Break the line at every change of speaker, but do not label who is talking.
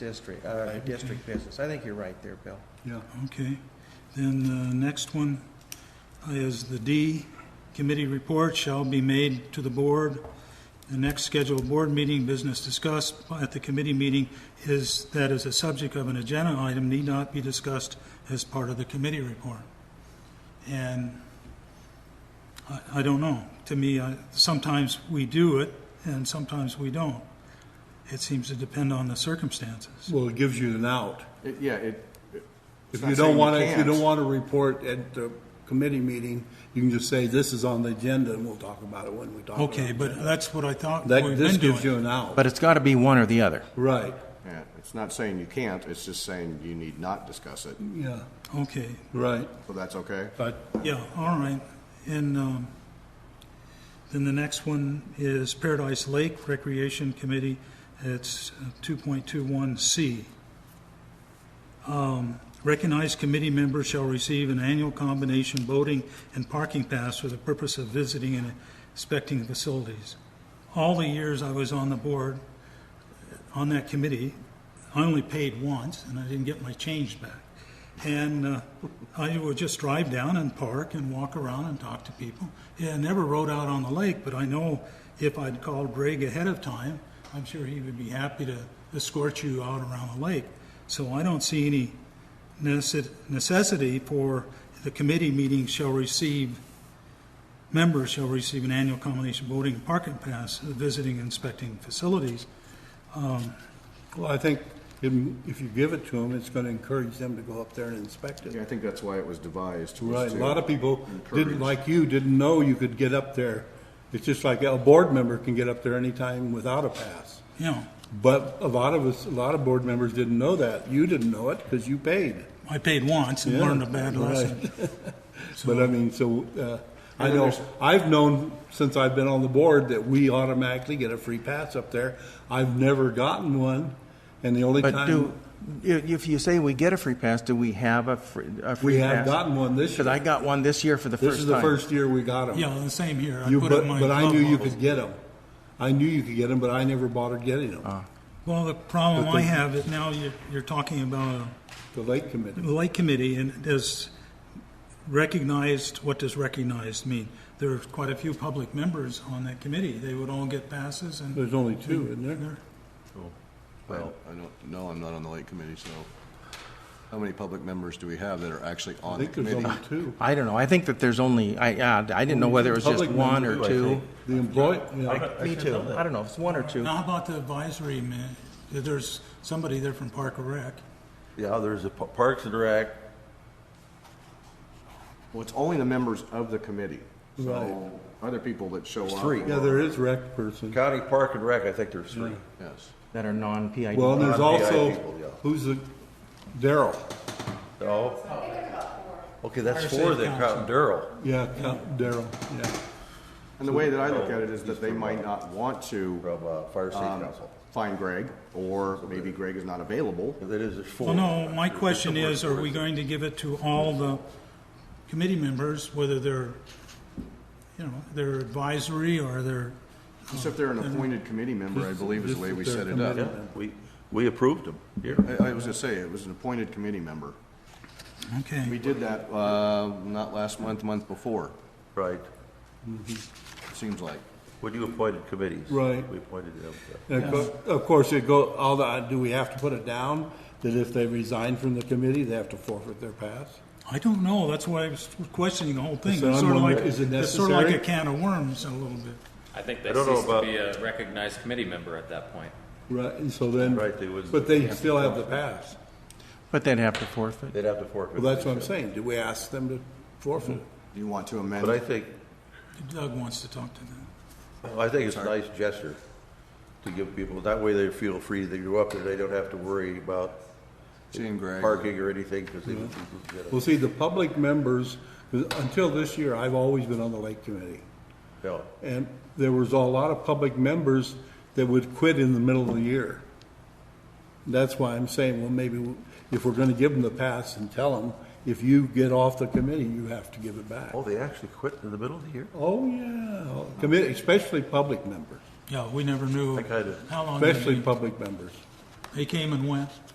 district, uh, district business. I think you're right there, Bill.
Yeah, okay. Then the next one is the D, committee report shall be made to the board. The next scheduled board meeting, business discussed at the committee meeting is, that is a subject of an agenda item need not be discussed as part of the committee report. And I, I don't know. To me, I, sometimes we do it and sometimes we don't. It seems to depend on the circumstances.
Well, it gives you an out.
It- Yeah, it,
If
not
you
saying
don't
you
want to, if you
can't.
don't want to report at the committee meeting, you can just say, this is on the agenda, and we'll talk about it when we talk about it.
Okay, but that's what I thought we've
That,
been doing.
this gives you an out,
But it's got to be one or the other.
right,
yeah, it's not saying you can't, it's just saying you need not discuss it,
yeah,
Okay,
right,
so that's okay.
but,
yeah, all right. And um, then the next one is Paradise Lake Recreation Committee. It's 2.21C. Um, Recognized committee members shall receive an annual combination boating and parking pass for the purpose of visiting and inspecting the facilities. All the years I was on the board, on that committee, I only paid once, and I didn't get my change back. And uh, I would just drive down and park and walk around and talk to people. Yeah, I never rode out on the lake, but I know if I'd called Greg ahead of time, I'm sure he would be happy to escort you out around the lake. So I don't see any necess- necessity for the committee meeting shall receive, members shall receive an annual combination boating and parking pass, visiting and inspecting facilities.
well, I think if if you give it to them, it's going to encourage them to go up there and inspect
Yeah, I
it.
think that's why it was devised. was
Right, a
to
lot of people
encourage-
didn't, like you, didn't know you could get up there. It's just like a board member can get up there anytime without a pass.
You know,
But a lot of us, a lot of board members didn't know that. You didn't know it because you paid.
I paid once and
Yeah,
learned a bad
right.
lesson.
But I mean, so, uh, I
And
know,
there's-
I've known since I've been on the board that we automatically get a free pass up there. I've never gotten one, and the only
But do,
time,
i- if you say we get a free pass, do we have a free, a free
we
pass?
have gotten one this
Because I
year.
got one this year for the
This
first
is
time.
the first year we got them.
Yeah, the same here. I
You,
put up
but,
my
but I
glove
knew you
box.
could get them. I knew you could get them, but I never bothered getting them.
Well, the problem
But the-
I have is now you're, you're talking about
The lake
a
committee.
lake committee and does recognized, what does recognized mean? There are quite a few public members on that committee. They would all get passes and.
There's only two, isn't there?
They're-
Well, I don't, know. I'm not on the lake committee, so how many public members do we have that are actually
I
on the
think there's
committee?
only two.
I don't know. I think that there's only, I, I I didn't know whether it was just
Public
one or
members, I
two.
think. The employee, yeah.
I- Me too. I don't know. if It's one or two.
Now, how about the advisory man? There's somebody there from Park and Rec.
Yeah, there's a P- Parks and Rec,
Well, it's only the members of the committee,
Right.
so other people that show up.
three.
Yeah, there is rec person.
County Park and Rec, I think there's three.
Yes.
That are non-PID.
Well, and there's
Non-PI
also,
people, yeah.
who's the, Daryl.
Oh. Okay, that's
Fire
four
Safe
that count Daryl.
Yeah, Count Daryl, yeah.
And the way that I look at it is that
uh,
they might not want to
From uh, Fire Safe
um,
Council.
find Greg, or maybe Greg is not available.
That is, there's four.
Well, Oh, no, my question
There's
is,
four.
are we going to give it to all the committee members, whether they're, you know, they're advisory or they're,
Just if they're an appointed committee member, I believe is the way we set it up.
Yeah, we, we approved them here.
I, I was gonna say, it was an appointed committee member. We
okay.
did that, uh, not last month, month before,
Right.
it seems like.
When you appointed committees.
Right.
We appointed them.
And of cour- of course, it go, all the, do we have to put it down that if they resign from the committee, they have to forfeit their pass?
I don't know, that's why I was questioning the whole thing.
So
It's
I'm
sort of like,
wondering, is it
it's sort of like a
necessary?
can of worms a little bit.
I think they
I don't know
ceased to
about-
be a recognized committee member at that point.
Right, and so then,
Right, they wouldn't-
but they still have the pass.
But they'd have to forfeit.
They'd have to forfeit.
Well, that's what I'm saying. Do we ask them to forfeit?
Do you want to amend?
But I think,
Doug wants to talk to them.
I think it's a nice gesture to give people, that way they feel free, they go up there, they don't have to worry about
Seeing Greg.
parking or anything, because they.
Well, see, the public members, until this year, I've always been on the lake committee.
No.
And there was a lot of public members that would quit in the middle of the year. That's why I'm saying, well, maybe if we're gonna give them the pass and tell them, if you get off the committee, you have to give it back.
Oh, they actually quit in the middle of the year?
Oh, yeah, committee, especially public members,
Yeah, we never knew
I kinda-
how long. they
especially
meet.
public members.
They came and went.